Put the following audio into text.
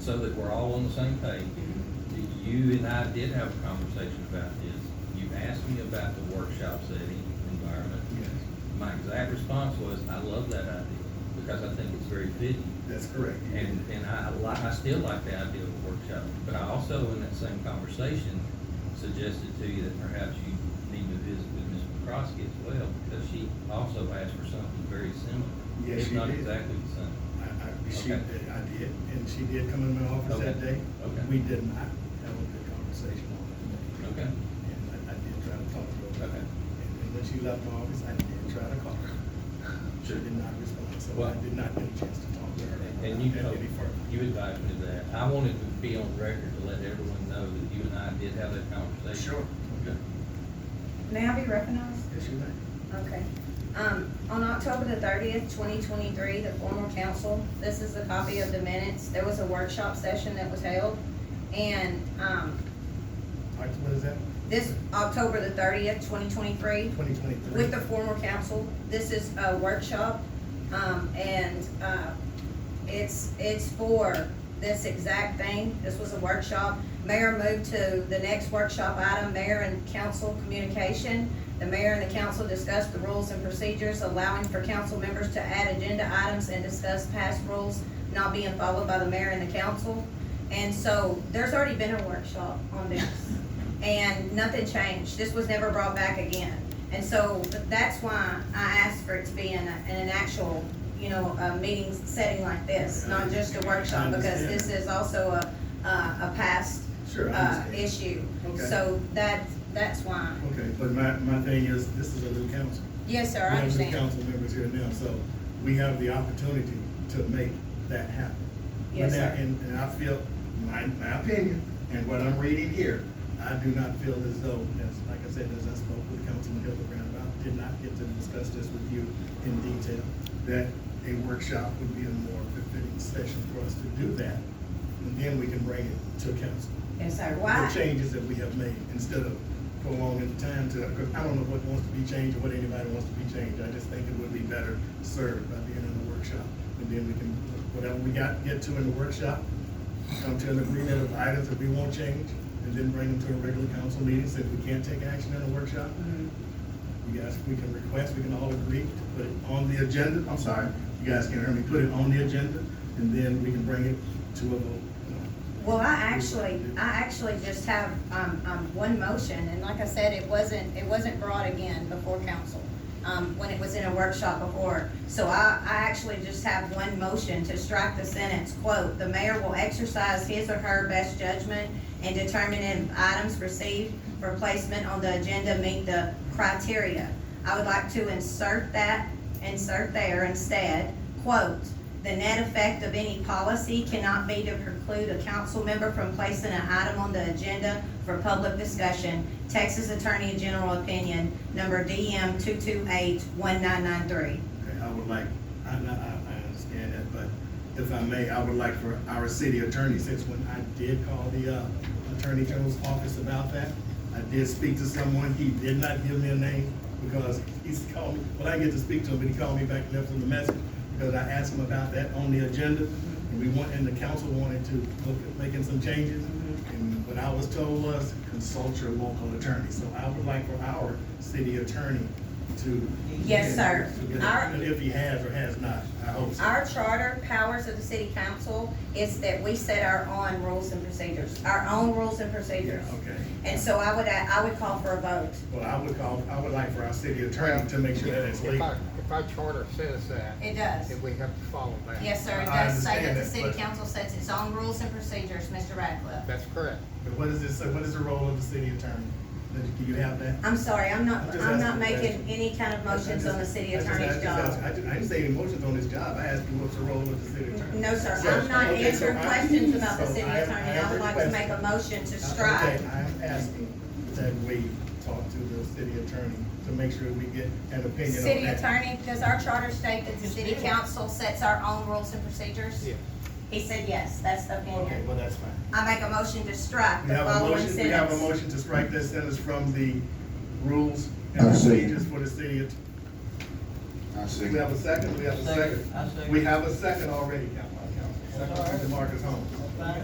so that we're all on the same page, you and I did have a conversation about this. You asked me about the workshop setting environment. Yes, My exact response was, I love that idea, because I think it's very fitting. that's correct. And, and I like, I still like the idea of a workshop, but I also, in that same conversation, suggested to you that perhaps you need to visit with Ms. McCroskey as well, because she also asked for something very similar. Yes, If she not did. exactly the same. I, I, she, I Okay. did, and she did come in my office that Okay. day. Okay. We did not have a good conversation on that day. Okay, And I, I did try to talk to her. Okay. And and when she left my office, I did try to call her. She did not respond, so I Well- did not get a chance to talk to her. And- and you at told, Any further. you invited me to that. I wanted to be on record to let everyone know that you and I did have that conversation. Sure. Okay. May I be recognized? Yes, you may. Okay. Um, on October the thirtieth, twenty twenty-three, the formal council, this is a copy of the minutes. There was a workshop session that was held. And, um, All right, what is that? this, October the thirtieth, twenty twenty-three, Twenty twenty-three? with the former council. This is a workshop, um, and, uh, it's, it's for this exact thing. This was a workshop. Mayor moved to the next workshop item, mayor and council communication. The mayor and the council discussed the rules and procedures allowing for council members to add agenda items and discuss past rules not being followed by the mayor and the council. And so there's already been a workshop on this and nothing changed. This was never brought back again. And so that's why I asked for it to be in, a- in an actual, you know, a meeting setting like this, not just a workshop, because this is also a, a, a past, Sure, I uh, understand. issue. Okay. So that, that's why. Okay, but my, my thing is, this is a new council. Yes, sir, I We have new understand. council members here now, so we have the opportunity to make that happen. Yes, But now, sir. And, and I feel, my, my opinion, and what I'm reading here, I do not feel as though, as, like I said, as I spoke with Councilman Hildebrand about, did not get to discuss this with you in detail, that a workshop would be a more fitting session for us to do that, and then we can bring it to council Yes, sir. the Why? changes that we have made instead of prolonging the time to, because I don't know what wants to be changed or what anybody wants to be changed. I just think it would be better served by being in the workshop. And then we can, whatever we got, get to in the workshop, come to an agreement of items that we won't change, and then bring them to a regular council meeting, so if we can't take action in the workshop, Mhm. you guys, we can request, we can all agree to put it on the agenda, I'm sorry, you guys can hear me, put it on the agenda, and then we can bring it to a vote. Well, I actually, I actually just have, um, um, one motion, and like I said, it wasn't, it wasn't brought again before council, um, when it was in a workshop before. So I, I actually just have one motion to strike the sentence, quote, "The mayor will exercise his or her best judgment in determining if items received for placement on the agenda meet the criteria." I would like to insert that, insert there instead, quote, "The net effect of any policy cannot be to preclude a council member from placing an item on the agenda for public discussion, Texas Attorney General Opinion, number DM 228-1993." Okay, I would like, I, I, I I understand that, but if I may, I would like for our city attorney, since when I did call the, uh, Attorney General's office about that, I did speak to someone, he did not give me a name, because he's called me, well, I get to speak to him, but he called me back and left him a message, because I asked him about that on the agenda, and we want, and the council wanted to look at making some changes, and what I was told was, consult your local attorney, so I would like for our city attorney to. Yes, sir. Our- And if he has or has not, I hope so. Our charter powers of the city council is that we set our own rules and procedures, our own rules and Yeah, procedures. okay. And so I would, I would call for a vote. Well, I would call, I would like for our city attorney to make sure that it's If legal. our, if our charter says that, It does. then we have to follow that. Yes, sir, it I does say that understand the that, city but- council sets its own rules and procedures, Mr. Ratcliffe. That's correct. But what is this, so what is the role of the city attorney? Do you have that? I'm sorry, I'm not, I'm just I'm not asking a making question. any kind of motions on the city I just- I just- attorney's I just- job. I just- I didn't say any motions on his job, I asked you what's the role of the city attorney. No, sir, So- I'm not okay, so answering I- questions about the so city I- I attorney. I would like to request- make a motion to Okay, strike. I'm asking that we talk to the city attorney to make sure we get an opinion on that. City attorney, does our charter state that the city council sets our own rules and procedures? Yeah. He said yes, that's the Okay, opinion. well, that's fine. I make a motion to strike We the have a following motion, we have a sentence. motion to strike that sentence from the rules and procedures for the city. att- I see. We have a second, we have a second. I second. We have a second already, Council- Council- Secretary Marcus Holmes.